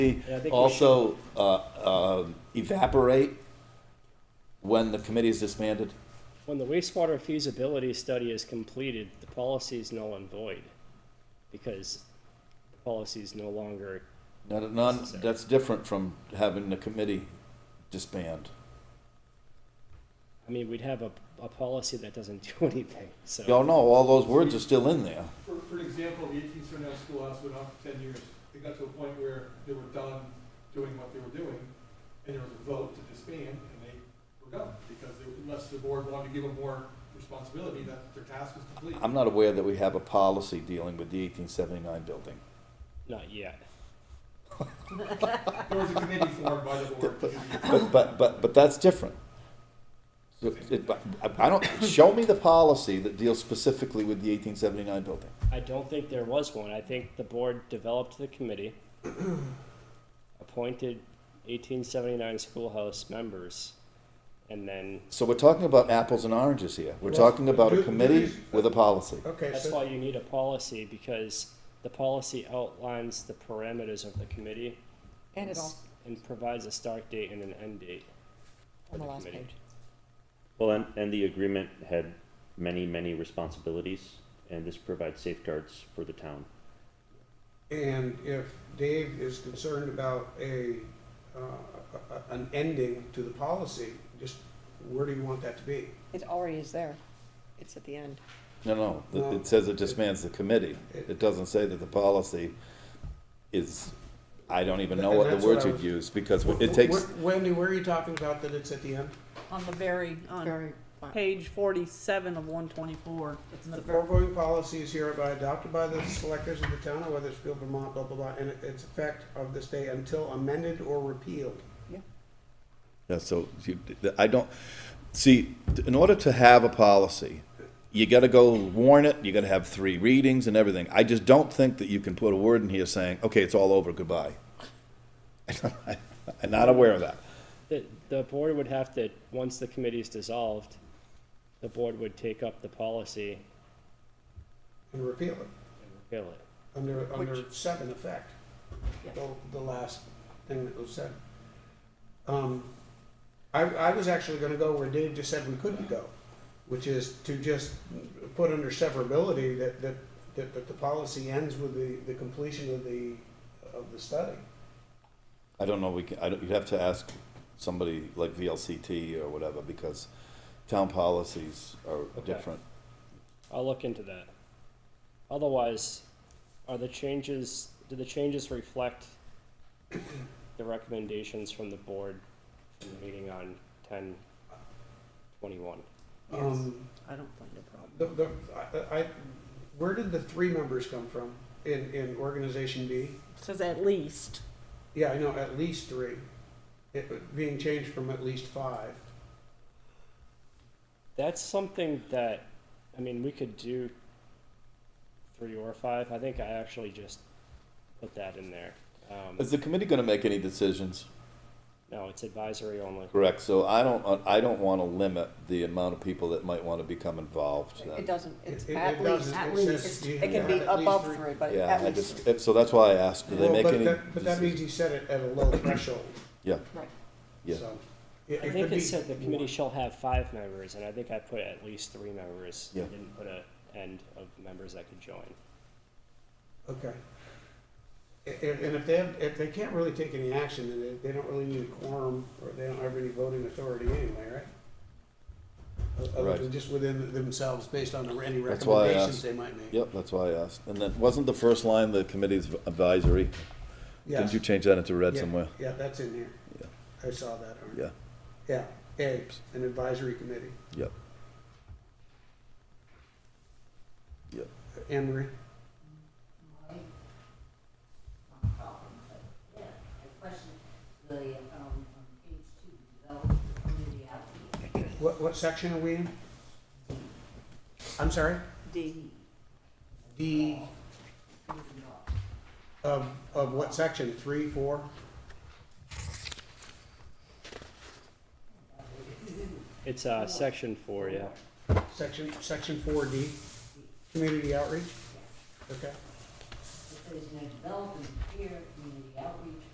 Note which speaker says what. Speaker 1: I think we
Speaker 2: also uh, um, evaporate when the committee is disbanded?
Speaker 1: When the wastewater feasibility study is completed, the policy is null and void because the policy is no longer,
Speaker 2: Not, not, that's different from having the committee disband.
Speaker 1: I mean, we'd have a, a policy that doesn't do anything, so.
Speaker 2: Y'all know, all those words are still in there.
Speaker 3: For, for example, the eighteen Cernel Schoolhouse went on for ten years. They got to a point where they were done doing what they were doing, and there was a vote to disband, and they were done, because they, unless the board wanted to give them more responsibility, that their task was complete.
Speaker 2: I'm not aware that we have a policy dealing with the 1879 building.
Speaker 1: Not yet.
Speaker 3: There was a committee formed by the board.
Speaker 2: But, but, but, but that's different. So it- but I I don't, show me the policy that deals specifically with the 1879 building.
Speaker 1: I don't think there was one. I think the board developed the committee, appointed eighteen seventy-nine schoolhouse members, and then,
Speaker 2: So we're talking about apples and oranges here. We're talking about a committee with a policy.
Speaker 4: Okay,
Speaker 1: that's
Speaker 4: so,
Speaker 1: why you need a policy because the policy outlines the parameters of the committee
Speaker 5: And it all,
Speaker 1: and provides a start date and an end date.
Speaker 5: on the last
Speaker 1: committee.
Speaker 5: page.
Speaker 6: Well, and, and the agreement had many, many responsibilities, and this provides safeguards for the town.
Speaker 4: and if Dave is concerned about a, uh, a- a- an ending to the policy, just where do you want that to be?
Speaker 5: It already is there. It's at the end.
Speaker 2: No, no, it- it says it disbands the committee. It doesn't say that the policy is, I don't even know what the
Speaker 4: And that's what
Speaker 2: words
Speaker 4: I
Speaker 2: you'd
Speaker 4: was-
Speaker 2: use, because it takes,
Speaker 4: Wh- Wendy, where are you talking about that it's at the end?
Speaker 7: on the very, on
Speaker 5: Very. fine.
Speaker 7: page forty-seven of one twenty-four. It's
Speaker 4: The
Speaker 7: the ver-
Speaker 4: foregoing policy is hereby adopted by the selectors of the town of Weathersfield, Vermont, blah, blah, blah, and its effect of this day until amended or repealed.
Speaker 2: Yeah, so, you- I don't, see, in order to have a policy, you gotta go warn it, you gotta have three readings and everything. I just don't think that you can put a word in here saying, okay, it's all over, goodbye. I'm not aware of that.
Speaker 1: The, the board would have to, once the committee is dissolved, the board would take up the policy
Speaker 4: And repeal it,
Speaker 1: and repeal it.
Speaker 4: under, under
Speaker 5: Which-
Speaker 4: seven effect,
Speaker 7: Yeah.
Speaker 4: the, the last thing that was said. Um, I, I was actually gonna go where Dave just said we couldn't go, which is to just put under severability that, that, that, that the policy ends with the, the completion of the, of the study.
Speaker 2: I don't know, we can, I don't, you'd have to ask somebody like VLCT or whatever, because town policies are different.
Speaker 1: I'll look into that. Otherwise, are the changes, do the changes reflect the recommendations from the board from the meeting on ten twenty-one?
Speaker 4: Um,
Speaker 7: I don't find a problem.
Speaker 4: The, the, I, I, where did the three members come from in, in organization B?
Speaker 7: It Says at least.
Speaker 4: Yeah, I know, at least three. It being changed from at least five.
Speaker 1: That's something that, I mean, we could do three or five. I think I actually just put that in there. Um,
Speaker 2: Is the committee gonna make any decisions?
Speaker 1: no, it's advisory only.
Speaker 2: Correct, so I don't, I don't wanna limit the amount of people that might wanna become involved.
Speaker 5: It doesn't, it's
Speaker 4: It- it-
Speaker 5: at
Speaker 4: it
Speaker 5: least,
Speaker 4: doesn't.
Speaker 5: at
Speaker 4: It
Speaker 5: least.
Speaker 4: says you
Speaker 5: It
Speaker 4: have
Speaker 5: can be
Speaker 4: at least
Speaker 5: above
Speaker 4: three.
Speaker 5: three, but
Speaker 2: Yeah,
Speaker 5: at
Speaker 2: I
Speaker 5: least
Speaker 2: just,
Speaker 5: three.
Speaker 2: it- so that's why I asked, do they
Speaker 4: Well,
Speaker 2: make
Speaker 4: but
Speaker 2: any?
Speaker 4: that- But that means you set it at a low threshold,
Speaker 2: Yeah,
Speaker 5: Right.
Speaker 2: yeah,
Speaker 4: so.
Speaker 1: I
Speaker 4: it- it
Speaker 1: think
Speaker 4: could
Speaker 1: it
Speaker 4: be
Speaker 1: said the
Speaker 4: more.
Speaker 1: committee shall have five members, and I think I put at least three members. I
Speaker 2: Yeah.
Speaker 1: didn't put a end of members that could join.
Speaker 4: Okay. A- And, and if they have, if they can't really take any action, then they, they don't really need a quorum, or they don't have any voting authority anyway, right? O- Other
Speaker 2: Right.
Speaker 4: than just within themselves, based on any
Speaker 2: That's why I
Speaker 4: recommendations
Speaker 2: asked.
Speaker 4: they might make.
Speaker 2: yep, that's why I asked. And then, wasn't the first line the committee's advisory? Didn't
Speaker 4: Yes.
Speaker 2: you change that into red
Speaker 4: Yeah,
Speaker 2: somewhere?
Speaker 4: Yeah, that's in here.
Speaker 2: Yeah.
Speaker 4: I saw that. Arne.
Speaker 2: Yeah,
Speaker 4: Yeah, A, an advisory committee.
Speaker 2: yep. Yep,
Speaker 4: Anne Marie?
Speaker 8: problem, but yeah, I question the, um, on page two, uh, develop the community outreach.
Speaker 4: What, what section are we in? I'm sorry?
Speaker 7: D.
Speaker 4: D
Speaker 8: Moving on.
Speaker 4: of, of what section? Three, four?
Speaker 1: It's uh, section four, yeah.
Speaker 4: Section, section four D? Community outreach? Okay.
Speaker 8: It says, you know, develop and prepare community outreach